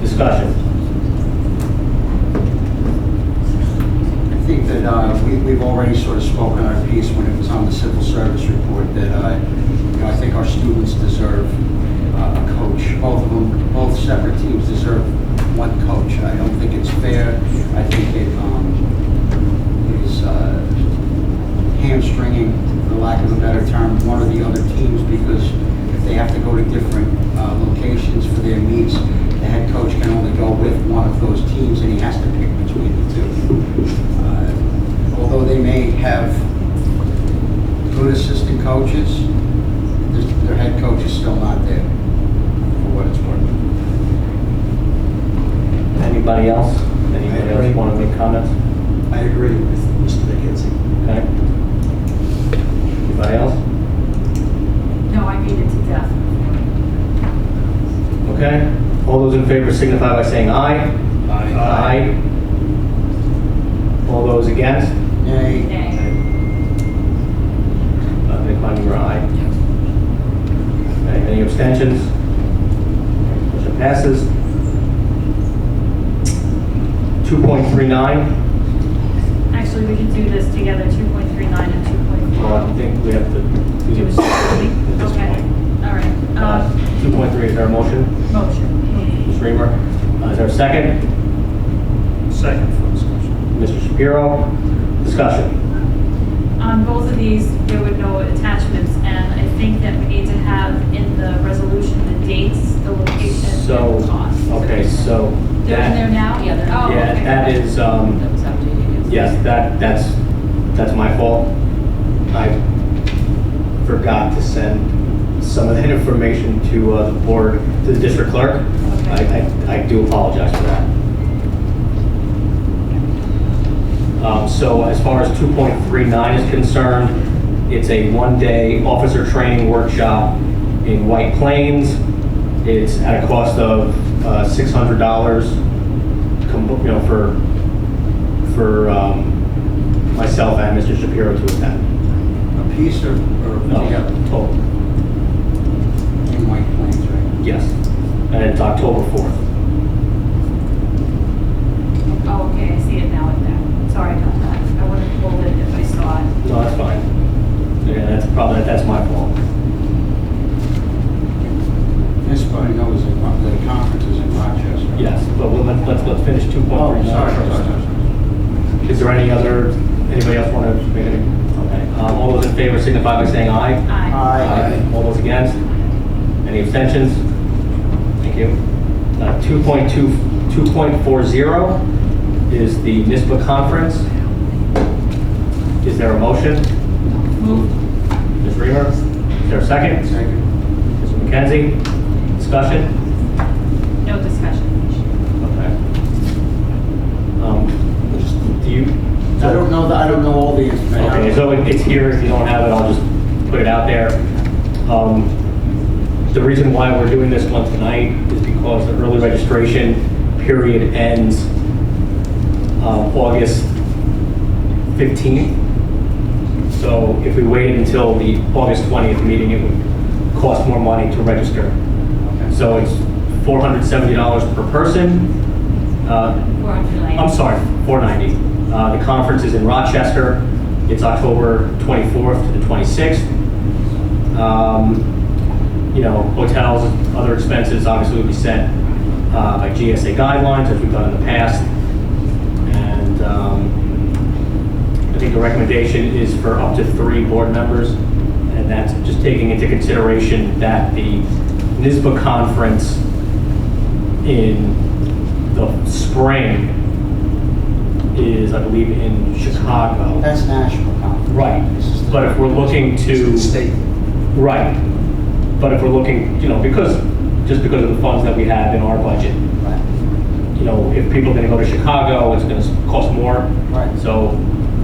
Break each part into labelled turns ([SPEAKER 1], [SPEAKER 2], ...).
[SPEAKER 1] discussion?
[SPEAKER 2] I think that uh, we- we've already sort of spoken our piece when it was on the civil service report that, uh, you know, I think our students deserve uh, a coach. Both of them, both separate teams deserve one coach. I don't think it's fair. I think it um, is uh, hamstringing, for lack of a better term, one of the other teams because if they have to go to different uh, locations for their meets, the head coach can only go with one of those teams and he has to pick between the two. Uh, Although they may have good assistant coaches, their- their head coach is still not there, for what it's worth.
[SPEAKER 1] Anybody else? Anybody else
[SPEAKER 3] agree.
[SPEAKER 1] want to make comments?
[SPEAKER 3] I agree with Mr. McKenzie.
[SPEAKER 1] Okay. Anybody else?
[SPEAKER 4] No, I beat it to death.
[SPEAKER 1] Okay. All those in favor signify by saying aye. Aye. All those against?
[SPEAKER 2] Nay,
[SPEAKER 4] Nay.
[SPEAKER 1] Uh, Nick Klein, you're aye. Okay, Any abstentions? Motion passes. 2.39.
[SPEAKER 4] Actually, we can do this together, 2.39 and 2.4.
[SPEAKER 1] Well, Oh, I think we have to do
[SPEAKER 4] Do it
[SPEAKER 1] this
[SPEAKER 4] separately?
[SPEAKER 1] at this
[SPEAKER 4] Okay,
[SPEAKER 1] point.
[SPEAKER 4] all right.
[SPEAKER 1] Uh,
[SPEAKER 4] Uh,
[SPEAKER 1] 2.3 is our motion.
[SPEAKER 4] Motion.
[SPEAKER 1] Ms. Reamer, uh, is there a second?
[SPEAKER 3] Second for discussion.
[SPEAKER 1] Mr. Shapiro, discussion.
[SPEAKER 4] On both of these, there were no attachments, and I think that we need to have in the resolution the dates, the location,
[SPEAKER 1] So,
[SPEAKER 4] and the cost.
[SPEAKER 1] okay, so
[SPEAKER 4] They're in there
[SPEAKER 1] that,
[SPEAKER 4] now? Yeah, they're. Oh, okay.
[SPEAKER 1] yeah, that is, um,
[SPEAKER 4] was updated.
[SPEAKER 1] yes, that, that's, that's my fault. I forgot to send some of that information to uh, the board, to the district clerk. I, I, I do apologize for that. Um, So as far as 2.39 is concerned, it's a one-day officer training workshop in White Plains. It's at a cost of uh, $600, com- you know, for, for um, myself and Mr. Shapiro to attend.
[SPEAKER 2] a piece or,
[SPEAKER 1] No,
[SPEAKER 2] or together,
[SPEAKER 1] total,
[SPEAKER 2] in White Plains, right?
[SPEAKER 1] yes. And it's October 4th.
[SPEAKER 4] Oh, okay, I see it now in there. Sorry about that. I would have pulled it if I saw it.
[SPEAKER 1] No, that's fine. Yeah, that's probably, that's my fault.
[SPEAKER 2] This probably knows that one of the conferences in Rochester.
[SPEAKER 1] Yes, but we'll- let's, let's let's finish 2.39.
[SPEAKER 2] Oh, sorry, sorry, sorry, sorry.
[SPEAKER 1] Is there any other, anybody else want to make any? Okay, um, all those in favor signify by saying aye.
[SPEAKER 4] Aye.
[SPEAKER 2] Aye.
[SPEAKER 1] All those against? Any abstentions? Thank you. Uh, 2.2, 2.40 is the NISBA conference. Is there a motion?
[SPEAKER 4] Move.
[SPEAKER 1] Ms. Reamer, is there a second?
[SPEAKER 2] Second.
[SPEAKER 1] Mr. McKenzie, discussion?
[SPEAKER 4] No discussion.
[SPEAKER 1] Okay. Um, Do you?
[SPEAKER 2] I don't know, the- I don't know all the information.
[SPEAKER 1] Okay, so it- it's here, if you don't have it, I'll just put it out there. Um, The reason why we're doing this one tonight is because the early registration period ends uh, August 15th. So if we waited until the August 20th meeting, it would cost more money to register.
[SPEAKER 2] Okay.
[SPEAKER 1] So it's $470 per person. Uh,
[SPEAKER 4] We're on delay.
[SPEAKER 1] I'm sorry, 490. Uh, The conference is in Rochester. It's October 24th to the 26th. Um, You know, hotels, other expenses obviously would be set uh, by GSA guidelines, as we've done in the past. And um, I think the recommendation is for up to three board members, and that's just taking into consideration that the NISBA conference in the spring is, I believe, in Chicago.
[SPEAKER 2] That's national conference.
[SPEAKER 1] Right,
[SPEAKER 2] This is the-
[SPEAKER 1] but if we're looking to.
[SPEAKER 3] State.
[SPEAKER 1] Right, but if we're looking, you know, because, just because of the funds that we have in our budget,
[SPEAKER 2] Right.
[SPEAKER 1] you know, if people are gonna go to Chicago, it's gonna cost more.
[SPEAKER 2] Right.
[SPEAKER 1] So,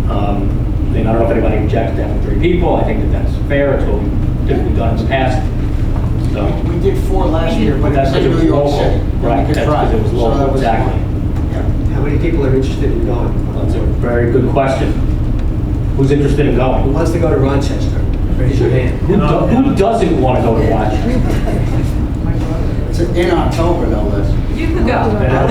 [SPEAKER 1] um, then I don't know if anybody objects to having three people, I think that that's fair, it's what we've typically done in the past, so.
[SPEAKER 2] We did four last year, but it
[SPEAKER 1] That's
[SPEAKER 2] was in
[SPEAKER 1] because
[SPEAKER 2] New
[SPEAKER 1] it was
[SPEAKER 2] York
[SPEAKER 1] local.
[SPEAKER 2] City.
[SPEAKER 1] Right, that's because it was local, exactly.
[SPEAKER 3] How many people are interested in going?
[SPEAKER 1] That's a very good question. Who's interested in
[SPEAKER 3] Who
[SPEAKER 1] going?
[SPEAKER 3] wants to go to Rochester? Raise your hand.
[SPEAKER 1] Who do- who doesn't wanna go to Rochester?
[SPEAKER 2] It's in October, no less.
[SPEAKER 4] You could
[SPEAKER 5] go.
[SPEAKER 6] And I-